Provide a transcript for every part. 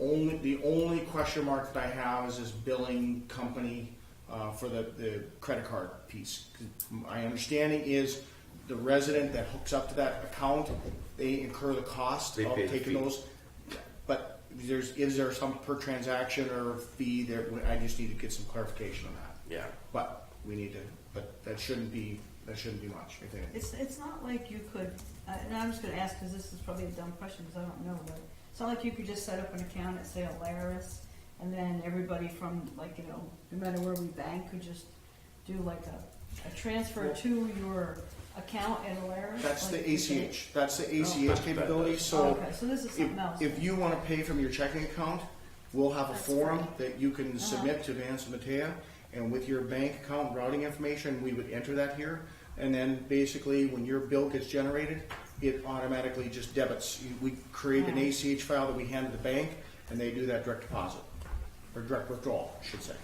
only, the only question mark that I have is this billing company uh, for the, the credit card piece. My understanding is the resident that hooks up to that account, they incur the cost They of pay the taking fee. those. But there's, is there some per transaction or fee that, we- I just need to get some clarification on that. Yeah. But we need to, but that shouldn't be, that shouldn't be much, I think. It's, it's not like you could, uh, and I'm just gonna ask, cause this is probably a dumb question, cause I don't know, but it's not like you could just set up an account at, say, Alaris, and then everybody from, like, you know, no matter where we bank, could just do like a, a transfer to your account at Alaris? That's the like you could- ACH, that's the That's ACH better. capability, Oh, so. Okay, so this is something else. If, if you want to pay from your checking account, we'll have a That's form great. that you Uh-huh. can submit to Vance and Matea, and with your bank account routing information, we would enter that here. And then basically, when your bill gets generated, it automatically just debits. You- We create an Yeah. ACH file that we hand to the bank, and they do that direct deposit, or direct withdrawal, I should say.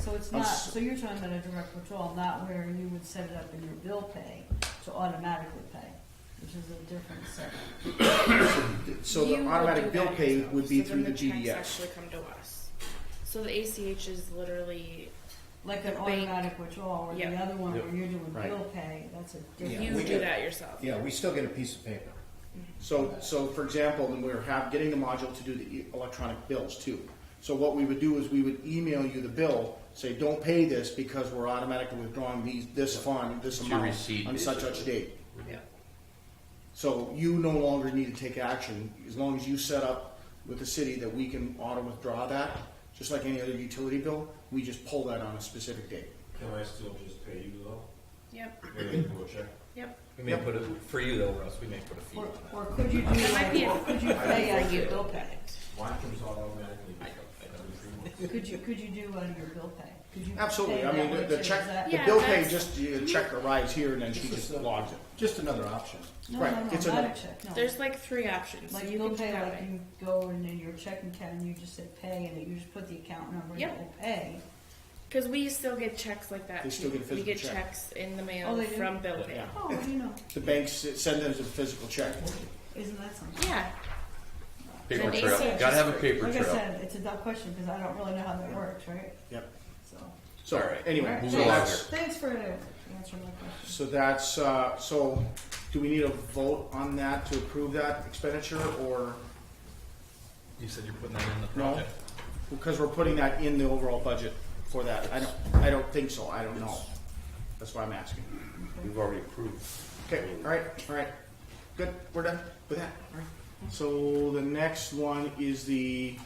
So it's I'm not, s- so you're talking about a direct withdrawal, not where you would set it up in your bill pay to automatically pay, which is a different set. So the You would do automatic bill that pay yourself. would be So through then the checks GDS. Actually come to us. So the ACH is literally Like an The bank- automatic withdrawal, or the Yeah. other one where you're doing Right. bill pay, that's a Yeah, you we do get- that yourself. Yeah, we still get a piece of paper. So, so for example, then we're have, getting the module to do the e- electronic bills too. So what we would do is we would email you the bill, say, don't pay this because we're automatically withdrawing these, this fund, this It's your amount receipt, on such such basically. date. Yeah. So you no longer need to take action, as long as you set up with the city that we can auto withdraw that, just like any other utility bill, we just pull that on a specific date. Can I still just pay you though? Yep. Maybe do a check? Yep. We may put a, for you though, Russ, we may put a fee Or, on or could you do, It might be a- like, could you pay out of your bill pay? Why comes all automatically? every three months? Could you, could you do out of your bill pay? Could you Absolutely, pay I mean, that way the- the too? Is check, that- the Yeah, bill pay, that's- just, you mm-hmm. know, check arrives here and then she just logs it. Just another option. No, right, no, no, it's a not no. a check, no. There's like three options. so Oh. Like you bill can do pay, that like way. you go and in your checking account and you just say pay and you just put the account number and Yep. it will pay. Because we still get checks like that. They still too. get a we get physical check. checks in the mail Oh, they do? from bill pay. Yeah. Oh, what do you know? The banks send them a physical check. Isn't that something? Yeah. Paper And they trail. say it's Gotta have a free. paper Like I trail. said, it's a dumb question because I don't really know how that works, right? Yep. So. So, All right. anyway, Alright, move so along that's, here. Thanks for answering my question. So that's, uh, so do we need a vote on that to approve that expenditure or, You said you're putting that in the No. project. because we're putting that in the overall budget for that? I don't, I don't think so. I don't know. That's why I'm asking. We've already approved. Okay, all right, all right. Good, we're done with that. All right. So the next one is the,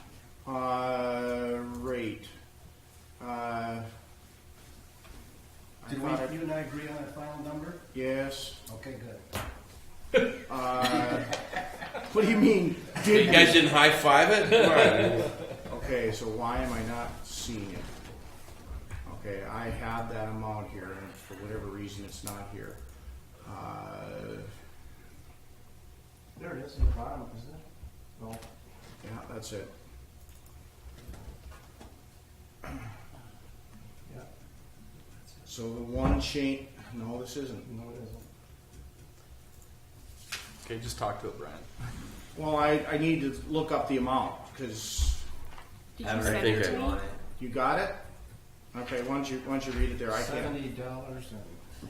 uh, rate. Uh, I Did thought we, I- you and I agree on a final number? Yes. uh, Okay, good. What do you mean? Did You guys didn't high five it? Okay, so why am I not seeing it? Okay, I have that amount here, and for whatever reason, it's not here. Uh, There it is in the bottom, isn't it? No. yeah, that's it. Yeah. So the one change, no, this isn't. No, it isn't. Okay, just talk to it, Brian. Well, I, I need to look up the amount, because Did I you don't send think it I to me? want it. you got it? Okay, why don't you, why don't you read it there? I can't. Seventy dollars and,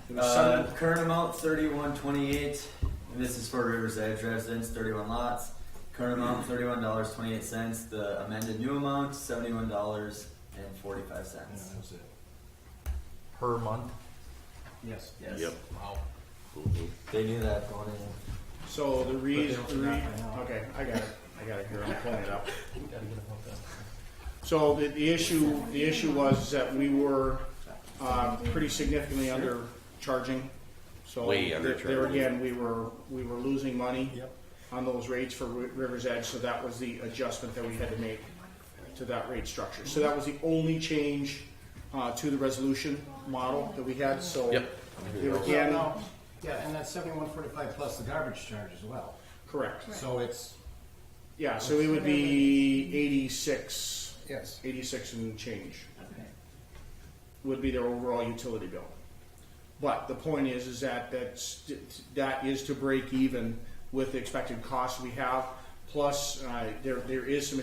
It was Uh, seven- current amount thirty-one twenty-eight, and this is for Rivers Edge residents, thirty-one lots. Current amount thirty-one dollars twenty-eight cents. The amended new amount seventy-one dollars and forty-five yeah, cents. that was it. Per month? Yes. Yes. Yep. Wow. They knew that going in. So the reason, But the they don't re- have it now. okay, I got it, I got it here, I'm pulling it up. Gotta get a hook up. So the, the issue, the issue was that we were, uh, pretty significantly undercharging. So Way there- there undercharging. again, we were, we were losing money. Yep. On those rates for Ri- River's Edge, so that was the adjustment that we had to make to that rate structure. So that was the only change, uh, to the resolution model that we had, so. Yep. There Yeah, again, no, yeah, and that's seventy-one forty-five plus the garbage charge as well. correct, So it's, yeah, so it would be eighty-six. yes. 86 and change would be their overall utility bill. But the point is, is that that's, that is to break even with the expected costs we have. Plus, uh, there, there is some